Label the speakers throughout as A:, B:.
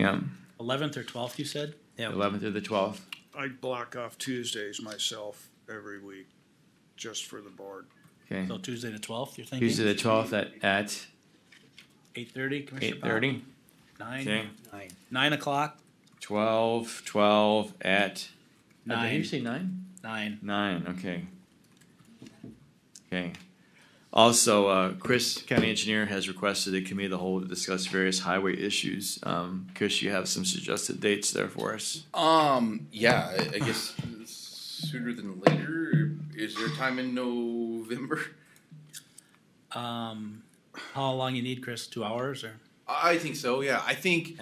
A: Yeah,
B: Eleventh or twelfth, you said? Yeah.
A: eleventh through the twelfth.
C: I block off Tuesdays myself every week, just for the board.
A: Okay,
B: So Tuesday the twelfth, you're thinking?
A: Tuesday the twelfth at at
B: Eight thirty, Commissioner
A: eight
B: Powell?
A: thirty. Okay,
B: Nine, nine o'clock,
A: twelve, twelve at. uh, Did you
B: nine,
A: say nine?
B: nine.
A: Nine. Okay. Okay. Also, uh, Chris, county engineer, has requested a committee of the whole to discuss various highway issues. Um, Chris, you have some suggested dates there for us.
D: Um, yeah, I, I guess sooner than later. Is there time in November?
B: Um, how long you need, Chris? Two hours or?
D: I I think so. Yeah, I think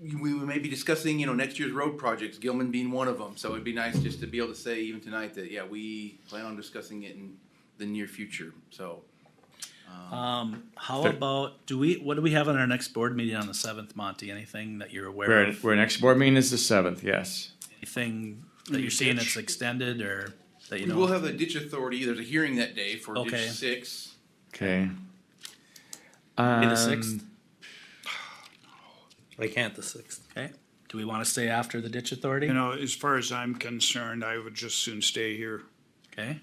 D: we we may be discussing you know next year's road projects, Gilman being one of them. So it'd be nice just to be able to say even tonight that yeah we plan on discussing it in the near future. So
B: Um, how
A: Thir-
B: about, do we, what do we have on our next board meeting on the seventh, Monty? Anything that you're aware
A: Where,
B: of?
A: where next board meeting is the seventh, yes.
B: Anything that you're seeing that's extended or that you
D: we will
B: know?
D: have the ditch authority. There's a hearing that day for
B: Okay.
D: ditch six.
A: Okay.
B: Be the
A: Um,
B: sixth?
E: I can't the sixth.
B: Okay. Do we wanna stay after the ditch authority?
C: You know, as far as I'm concerned, I would just soon stay here
B: Okay.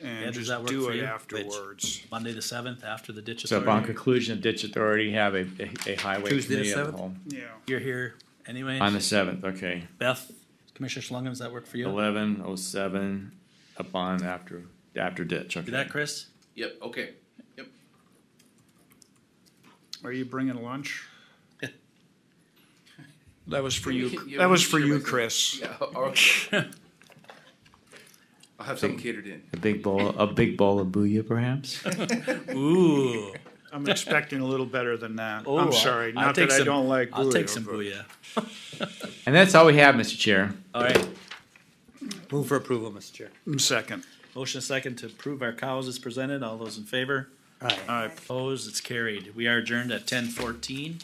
B: Yeah,
C: and
B: does
C: just
B: that work
C: do
B: for
C: it
B: you?
C: afterwards.
B: Monday the seventh after the ditch
A: So upon
B: authority?
A: conclusion of ditch authority, have a, a- a highway
E: Tuesday the
A: committee of the
E: 7th?
A: whole.
C: Yeah.
B: You're here anyway.
A: On the seventh, okay.
B: Beth, Commissioner Schlangen, does that work for you?
A: Eleven oh seven upon after, after ditch,
B: Do
A: okay.
B: that, Chris?
D: Yep. Okay.
C: Are you bringing lunch? That was for
D: Yeah,
C: you,
D: we can- yeah,
C: that
D: we
C: was
D: can
C: for
D: share
C: you,
D: with them.
C: Chris.
D: Yeah. okay. I'll have something catered in.
A: A big bowl, a big bowl of booyah perhaps?
B: Ooh.
C: I'm expecting a little better than that.
B: Oh,
C: I'm sorry,
B: I'll
C: not
B: take
C: that I
B: some-
C: don't like
B: I'll take some
C: booyah.
B: booyah.
A: And that's all we have, Mr. Chair.
B: All right.
E: Move for approval, Mr. Chair.
C: but- Mm, Second,
B: Motion second to approve our cows as presented. All those in favor?
E: Aye.
C: Aye.
B: Opposed? It's carried. We are adjourned at ten fourteen.